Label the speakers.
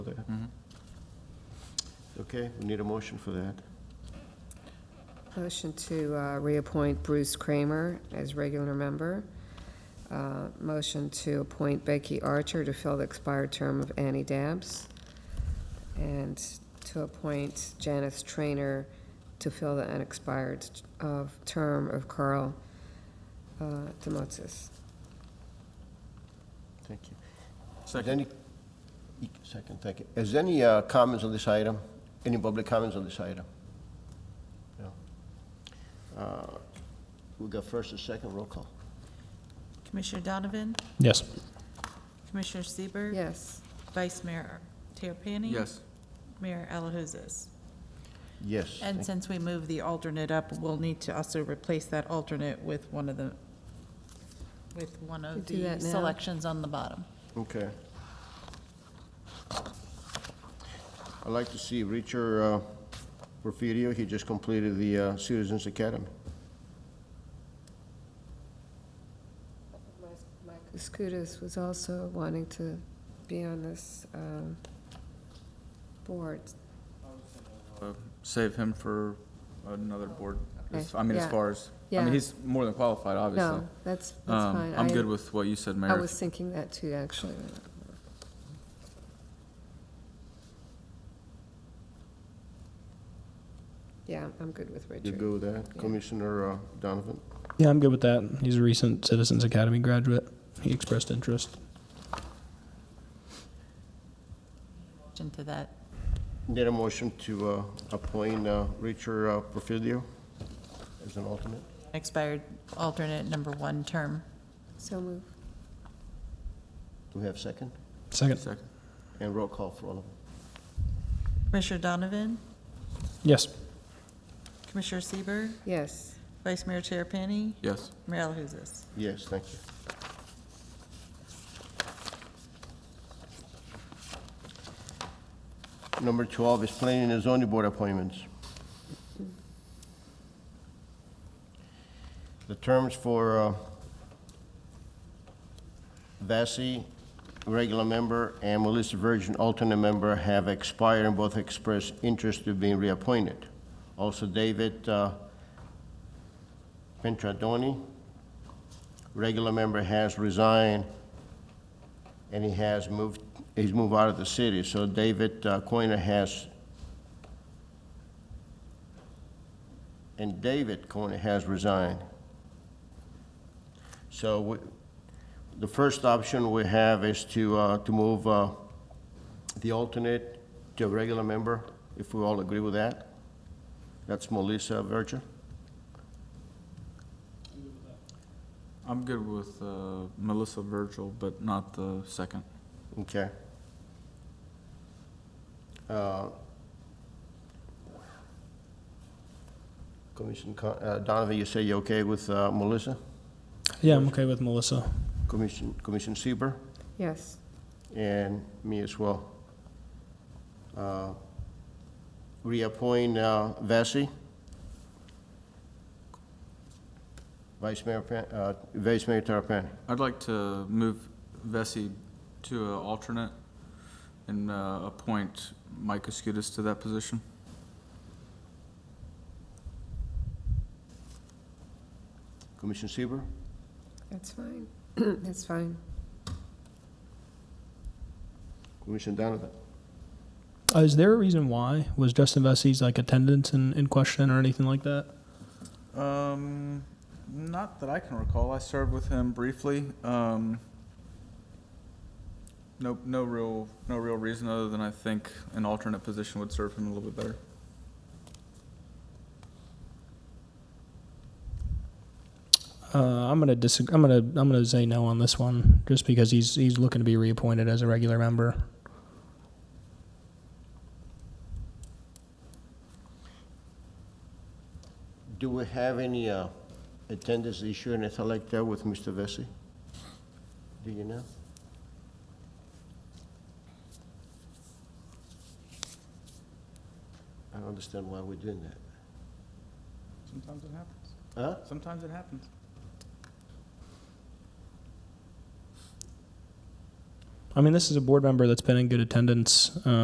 Speaker 1: Mm-hmm. Okay, we need a motion for that.
Speaker 2: Motion to uh, reappoint Bruce Kramer as regular member. Uh, Motion to appoint Becky Archer to fill the expired term of Annie Dabbs. And to appoint Janice Trainer to fill the unexpired uh, term of Carl uh, Demotsis.
Speaker 1: Thank you. Second. Second, thank you. Is there any uh, comments on this item? Any public comments on this item? No. Uh, We got first and second, roll call.
Speaker 3: Commissioner Donovan?
Speaker 4: Yes.
Speaker 3: Commissioner Sieber,
Speaker 2: Yes,
Speaker 3: Vice Mayor Terapany?
Speaker 5: Yes.
Speaker 3: Mayor Alahouzes?
Speaker 1: Yes.
Speaker 3: And
Speaker 1: thank-
Speaker 3: since we moved the alternate up, we'll need to also replace that alternate with one of the, with one
Speaker 2: You
Speaker 3: of
Speaker 2: do
Speaker 3: the
Speaker 2: that now.
Speaker 3: selections on the bottom.
Speaker 1: Okay. I'd like to see Richard uh, Porfirio, he just completed the uh, Citizens Academy.
Speaker 2: Skudas was also wanting to be on this um, board.
Speaker 5: Save him for another board.
Speaker 2: Okay.
Speaker 5: I mean, as
Speaker 2: Yeah.
Speaker 5: far as, I
Speaker 2: Yeah.
Speaker 5: mean, he's more than qualified, obviously.
Speaker 2: No, that's, that's
Speaker 5: Um,
Speaker 2: fine.
Speaker 5: I'm
Speaker 2: I-
Speaker 5: good with what you said,
Speaker 2: I
Speaker 5: Mayor.
Speaker 2: was thinking that too, actually. Yeah, I'm good with
Speaker 1: You
Speaker 2: Richard.
Speaker 1: go with that, Commissioner uh, Donovan?
Speaker 4: Yeah, I'm good with that. He's a recent Citizens Academy graduate. He expressed interest.
Speaker 3: Into that,
Speaker 1: Need a motion to uh, appoint uh, Richard uh, Porfirio as an alternate?
Speaker 3: expired alternate number one term.
Speaker 2: So move.
Speaker 1: Do we have second?
Speaker 4: Second.
Speaker 5: Second.
Speaker 1: And roll call for all of them.
Speaker 3: Commissioner Donovan?
Speaker 4: Yes.
Speaker 3: Commissioner Sieber,
Speaker 2: Yes,
Speaker 3: Vice Mayor Terapany?
Speaker 5: Yes.
Speaker 3: Mayor Alahouzes?
Speaker 1: Yes, thank you. Number 12 is planning and zoning board appointments. The terms for uh, Vassie, regular member, and Melissa Virgin, alternate member, have expired and both expressed interest to being reappointed. Also, David uh, Pentradoni, regular member has resigned, and he has moved, he's moved out of the city, so David uh, Coiner has, and David Coiner has resigned. So we- the first option we have is to, uh, to move uh, the alternate to a regular member, if we all agree with that. That's Melissa Verger.
Speaker 5: I'm good with uh, Melissa Virgil, but not the second.
Speaker 1: Okay. Uh, Commissioner Con- uh, Donovan, you say you're okay with uh, Melissa?
Speaker 4: Yeah, I'm okay with Melissa.
Speaker 1: Commission, Commissioner Sieber,
Speaker 2: yes.
Speaker 1: and me as well. Uh, Reappoint uh, Vassie. Vice Mayor, Pan- uh, Vice Mayor Terapany.
Speaker 5: I'd like to move Vesey to an alternate and uh, appoint Mike Escudis to that position.
Speaker 1: Commissioner Sieber.
Speaker 2: That's fine. That's fine.
Speaker 1: Commissioner Donovan.
Speaker 4: Uh, is there a reason why? Was Justin Vesey's like attendance in, in question or anything like that?
Speaker 5: Um, not that I can recall. I served with him briefly. Um, no, no real, no real reason other than I think an alternate position would serve him a little bit better.
Speaker 4: Uh, I'm gonna disagree. I'm gonna I'm gonna say no on this one just because he's he's looking to be reappointed as a regular member.
Speaker 1: Do we have any uh, attendance issue or anything like that with Mr. Vesey? Do you know? I don't understand why we're doing that.
Speaker 5: Sometimes it happens.
Speaker 1: Huh?
Speaker 5: Sometimes it happens.
Speaker 4: I mean, this is a board member that's been in good attendance. uh,